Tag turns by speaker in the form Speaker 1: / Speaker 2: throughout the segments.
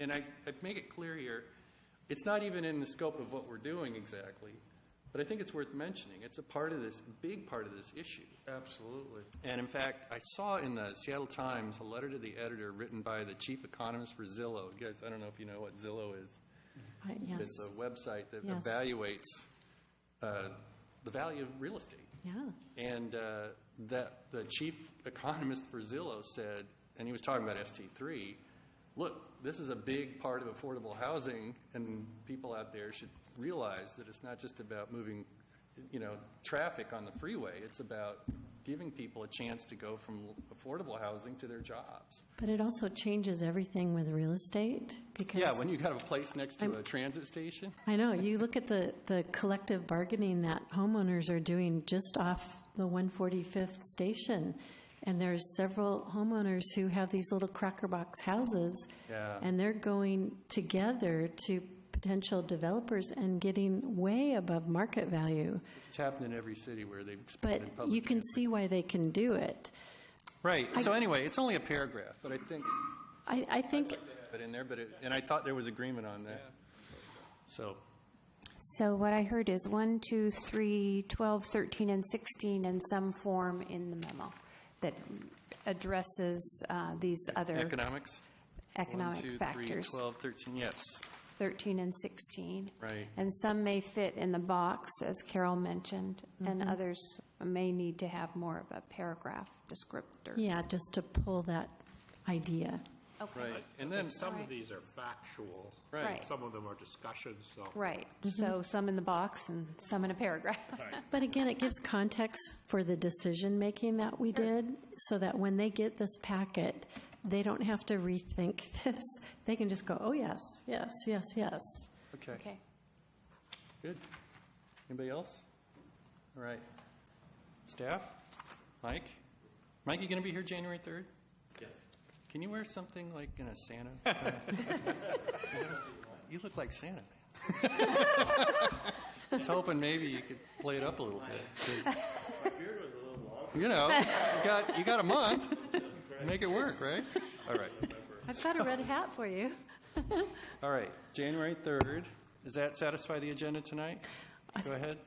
Speaker 1: and I, I make it clear here, it's not even in the scope of what we're doing exactly, but I think it's worth mentioning. It's a part of this, big part of this issue.
Speaker 2: Absolutely.
Speaker 1: And in fact, I saw in the Seattle Times a letter to the editor written by the chief economist for Zillow. You guys, I don't know if you know what Zillow is.
Speaker 3: Right,
Speaker 1: It's
Speaker 3: yes,
Speaker 1: a website that
Speaker 3: Yes.
Speaker 1: evaluates uh, the value of real estate.
Speaker 3: yeah,
Speaker 1: And uh, that the chief economist for Zillow said, and he was talking about ST3, look, this is a big part of affordable housing, and people out there should realize that it's not just about moving, you know, traffic on the freeway. It's about giving people a chance to go from affordable housing to their jobs.
Speaker 3: but it also changes everything with real estate because.
Speaker 1: Yeah, when you have a place next to
Speaker 3: I'm-
Speaker 1: a transit station,
Speaker 3: I know, you look at the, the collective bargaining that homeowners are doing just off the 145th station, and there's several homeowners who have these little cracker box houses,
Speaker 1: Yeah.
Speaker 3: and they're going together to potential developers and getting way above market value.
Speaker 1: it's happened in every city where they've
Speaker 3: But
Speaker 1: expanded public
Speaker 3: you can see why they can do it.
Speaker 1: Right, so anyway, it's only a paragraph, but I think
Speaker 3: I, I think,
Speaker 1: But in there, but it, and I thought there was agreement on that. So,
Speaker 4: So what I heard is 1, 2, 3, 12, 13, and 16 in some form in the memo that addresses uh, these other
Speaker 1: economics?
Speaker 4: economic
Speaker 1: One, two, three,
Speaker 4: factors,
Speaker 1: 12, 13, yes,
Speaker 4: 13 and 16.
Speaker 1: right.
Speaker 4: And some may fit in the box, as Carol mentioned, and
Speaker 3: Mm-hmm.
Speaker 4: others may need to have more of a paragraph descriptor.
Speaker 3: yeah, just to pull that idea.
Speaker 4: Okay.
Speaker 1: Right, and then some,
Speaker 4: Right.
Speaker 5: Some of these are factual.
Speaker 1: Right.
Speaker 5: Some of them are discussions, so.
Speaker 4: Right,
Speaker 3: Mm-hmm.
Speaker 4: so some in the box and some in a paragraph.
Speaker 3: But again, it gives context for the decision-making that we did, so that when they get this packet, they don't have to rethink this. They can just go, oh, yes, yes, yes, yes.
Speaker 1: okay,
Speaker 4: Okay.
Speaker 1: good. Anybody else? All right. Staff? Mike? Mike, you gonna be here January 3rd? Yes. Can you wear something like in a Santa? You look like Santa, man. I was hoping maybe you could play it up a little bit. 'cause-
Speaker 6: beard was a little long.
Speaker 1: You know, you got, you got a month. Make it work, right? All right.
Speaker 3: I've got a red hat for you.
Speaker 1: All right. January 3rd. Does that satisfy the agenda tonight? Go ahead.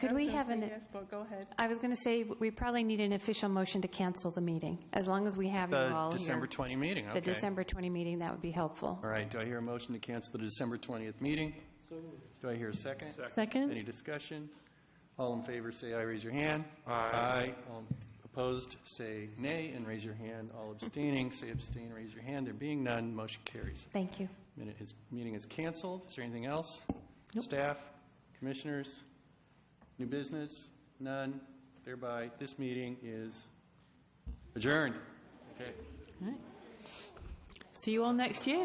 Speaker 4: Could we have an-
Speaker 7: Yes, but go ahead.
Speaker 4: I was going to say, we probably need an official motion to cancel the meeting, as long as we have you
Speaker 1: The
Speaker 4: all here.
Speaker 1: Uh, December 20 meeting, okay.
Speaker 4: The December 20 meeting, that would be helpful.
Speaker 1: All right. Do I hear a motion to cancel the December 20th meeting? Do I hear a second? Any
Speaker 3: Second?
Speaker 1: discussion? All in favor, say aye, raise your hand. Aye. All opposed, say nay, and raise your hand. All abstaining, say abstain, raise your hand. There being none, motion carries.
Speaker 4: Thank you.
Speaker 1: Minute is, meeting is canceled. Is there anything else? Staff, commissioners, new business? None. Thereby, this meeting is adjourned. Okay.
Speaker 7: See you all next year.